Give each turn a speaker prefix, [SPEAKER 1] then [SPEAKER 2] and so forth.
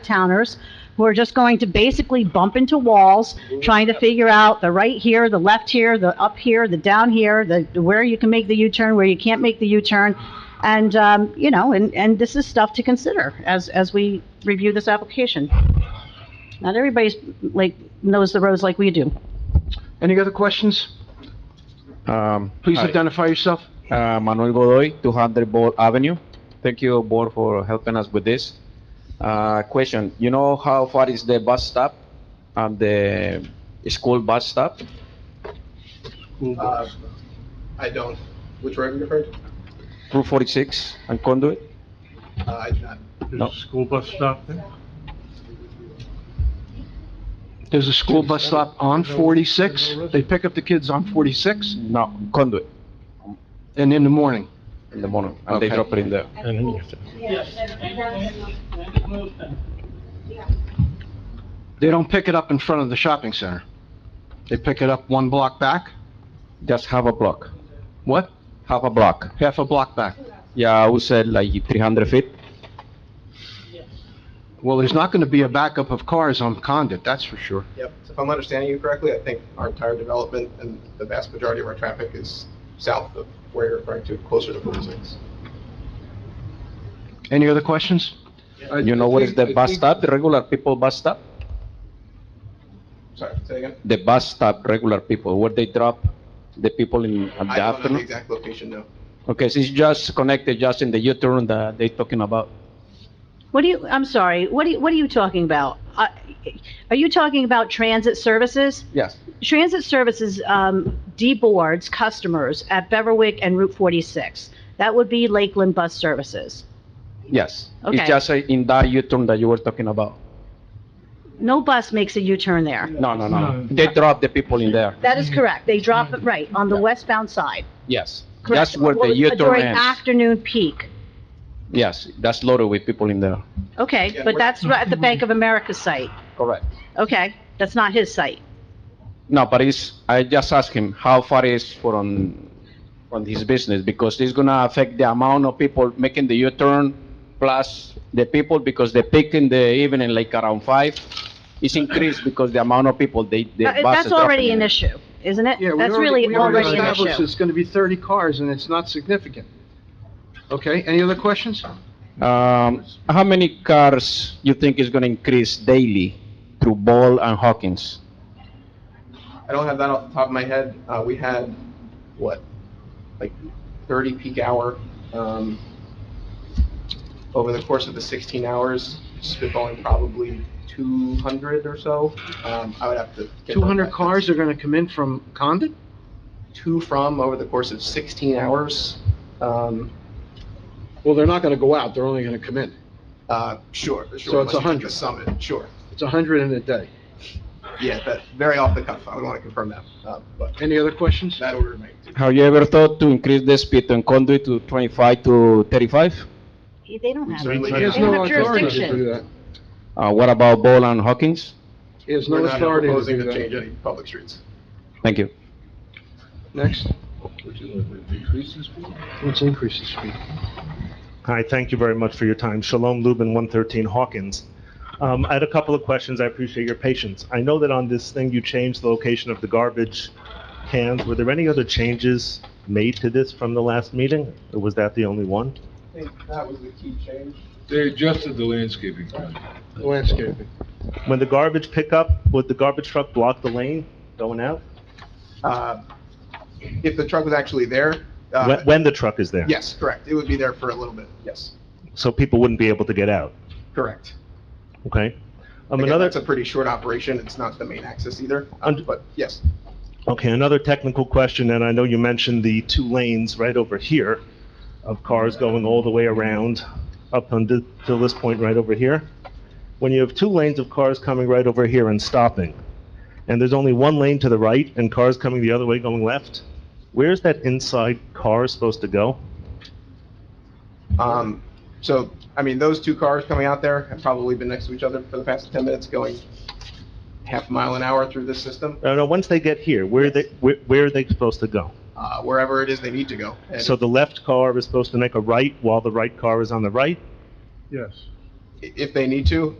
[SPEAKER 1] out-of-towners who are just going to basically bump into walls, trying to figure out the right here, the left here, the up here, the down here, the, the where you can make the U-turn, where you can't make the U-turn. And, um, you know, and, and this is stuff to consider as, as we review this application. Not everybody's, like, knows the roads like we do.
[SPEAKER 2] Any other questions?
[SPEAKER 3] Um,
[SPEAKER 2] Please
[SPEAKER 3] hi.
[SPEAKER 2] identify yourself.
[SPEAKER 3] Uh, Manuel Godoy, 200 Ball Avenue. Thank you, board, for helping us with this. Uh, Question, you know how far is the bus stop and the school bus stop?
[SPEAKER 4] Uh, I don't. Which road are you referring to?
[SPEAKER 3] Route 46 and Conduit?
[SPEAKER 4] Uh, I do not.
[SPEAKER 3] No.
[SPEAKER 5] There's a school bus stop there?
[SPEAKER 2] There's a school bus stop on 46. They pick up the kids on 46
[SPEAKER 3] No, Conduit
[SPEAKER 2] and in the morning.
[SPEAKER 3] in the morning, and they
[SPEAKER 2] Okay.
[SPEAKER 3] drop it in there.
[SPEAKER 5] And then you have to-
[SPEAKER 2] They don't pick it up in front of the shopping center. They pick it up one block back.
[SPEAKER 3] Just half a block,
[SPEAKER 2] What?
[SPEAKER 3] half a block.
[SPEAKER 2] Half a block back.
[SPEAKER 3] Yeah, I would say like 300 feet.
[SPEAKER 2] Well, there's not going to be a backup of cars on Condit, that's for sure.
[SPEAKER 4] Yep. If I'm understanding you correctly, I think our entire development and the vast majority of our traffic is south of where you're referring to, closer to 46.
[SPEAKER 2] Any other questions?
[SPEAKER 3] You know what is the bus stop, the regular people bus stop?
[SPEAKER 4] Sorry, say again?
[SPEAKER 3] The bus stop, regular people, where they drop the people in at the
[SPEAKER 4] I don't know the
[SPEAKER 3] afternoon?
[SPEAKER 4] exact location, no.
[SPEAKER 3] Okay, so it's just connected just in the U-turn that they talking about.
[SPEAKER 1] What do you, I'm sorry, what do you, what are you talking about? Uh, Are you talking about transit services?
[SPEAKER 3] Yes.
[SPEAKER 1] Transit services, um, deboards customers at Beverwick and Route 46. That would be Lakeland Bus Services.
[SPEAKER 3] Yes.
[SPEAKER 1] Okay.
[SPEAKER 3] It's just uh, in that U-turn that you were talking about.
[SPEAKER 1] No bus makes a U-turn there.
[SPEAKER 3] No, no, no.
[SPEAKER 5] No.
[SPEAKER 3] They drop the people in there.
[SPEAKER 1] That is correct. They drop it right on the westbound side.
[SPEAKER 3] Yes.
[SPEAKER 1] Correct.
[SPEAKER 3] Mm-hmm. That's where
[SPEAKER 1] Well,
[SPEAKER 3] the U-turn
[SPEAKER 1] During
[SPEAKER 3] ends.
[SPEAKER 1] afternoon peak.
[SPEAKER 3] Yes, that's loaded with people in there.
[SPEAKER 1] Okay,
[SPEAKER 4] Yeah,
[SPEAKER 1] but
[SPEAKER 4] we're-
[SPEAKER 1] that's right at the Bank of America site.
[SPEAKER 3] Correct.
[SPEAKER 1] Okay, that's not his site.
[SPEAKER 3] No, but it's, I just asked him how far is from, from his business because it's gonna affect the amount of people making the U-turn plus the people because they pick in the evening like around five. It's increased because the amount of people they, the
[SPEAKER 1] Uh,
[SPEAKER 3] buses
[SPEAKER 1] That's
[SPEAKER 3] dropping
[SPEAKER 1] already
[SPEAKER 3] in
[SPEAKER 1] an
[SPEAKER 3] there.
[SPEAKER 1] issue, isn't it? That's really already an issue.
[SPEAKER 2] It's going to be 30 cars and it's not significant. Okay, any other questions?
[SPEAKER 3] Um, how many cars you think is gonna increase daily through Ball and Hawkins?
[SPEAKER 4] I don't have that off the top of my head. Uh, we had, what, like 30 peak hour, um, over the course of the 16 hours, spitballing probably 200 or so. Um, I would have to. get
[SPEAKER 2] 200
[SPEAKER 4] that.
[SPEAKER 2] cars are going to come in from Condit?
[SPEAKER 4] To from over the course of 16 hours. Um,
[SPEAKER 2] Well, they're not going to go out, they're only going to come in.
[SPEAKER 4] uh, sure, sure.
[SPEAKER 2] So it's
[SPEAKER 4] unless you
[SPEAKER 2] 100.
[SPEAKER 4] took the Summit, sure.
[SPEAKER 2] It's 100 in a day.
[SPEAKER 4] Yeah, that, very off the cuff. I would want to confirm that, uh, but
[SPEAKER 2] Any other questions?
[SPEAKER 4] that order of magnitude.
[SPEAKER 3] Have you ever thought to increase the speed on Conduit to twenty-five to thirty-five?
[SPEAKER 1] They don't have it.
[SPEAKER 4] Certainly
[SPEAKER 1] They
[SPEAKER 2] He has
[SPEAKER 1] don't
[SPEAKER 2] no
[SPEAKER 1] have
[SPEAKER 2] authority to
[SPEAKER 1] jurisdiction.
[SPEAKER 2] do that.
[SPEAKER 3] Uh, what about Ball and Hawkins?
[SPEAKER 2] He has
[SPEAKER 4] We're
[SPEAKER 2] no
[SPEAKER 4] not
[SPEAKER 2] authority to
[SPEAKER 4] proposing
[SPEAKER 2] do
[SPEAKER 4] to change
[SPEAKER 2] that.
[SPEAKER 4] any public streets.
[SPEAKER 3] Thank you.
[SPEAKER 2] Next. Let's increase the speed.
[SPEAKER 6] Hi, thank you very much for your time. Shalom Lubin, 113 Hawkins. Um, I had a couple of questions. I appreciate your patience. I know that on this thing, you changed the location of the garbage cans. Were there any other changes made to this from the last meeting? Or was that the only one?
[SPEAKER 4] I think that was the key change.
[SPEAKER 7] They adjusted the landscaping plan.
[SPEAKER 2] Landscaping.
[SPEAKER 6] When the garbage pickup, would the garbage truck block the lane going out?
[SPEAKER 4] Uh, If the truck was actually there, uh,
[SPEAKER 6] When, when the truck is there?
[SPEAKER 4] yes, correct. It would be there for a little bit, yes,
[SPEAKER 6] So people wouldn't be able to get out,
[SPEAKER 4] correct.
[SPEAKER 6] okay? Um,
[SPEAKER 4] Again,
[SPEAKER 6] another,
[SPEAKER 4] that's a pretty short operation. It's not the main axis either, uh,
[SPEAKER 6] Und-
[SPEAKER 4] but yes.
[SPEAKER 6] okay, another technical question, and I know you mentioned the two lanes right over here of cars going all the way around up until this point right over here. When you have two lanes of cars coming right over here and stopping, and there's only one lane to the right and cars coming the other way going left, where's that inside car supposed to go?
[SPEAKER 4] Um, So, I mean, those two cars coming out there have probably been next to each other for the past 10 minutes, going half a mile an hour through this system,
[SPEAKER 6] Uh, No, no, once they get here, where they, where, where are they supposed to go?
[SPEAKER 4] uh, wherever it is they need to go. And
[SPEAKER 6] So the left car is supposed to make a right while the right car is on the right?
[SPEAKER 5] Yes.
[SPEAKER 4] i- If they need to,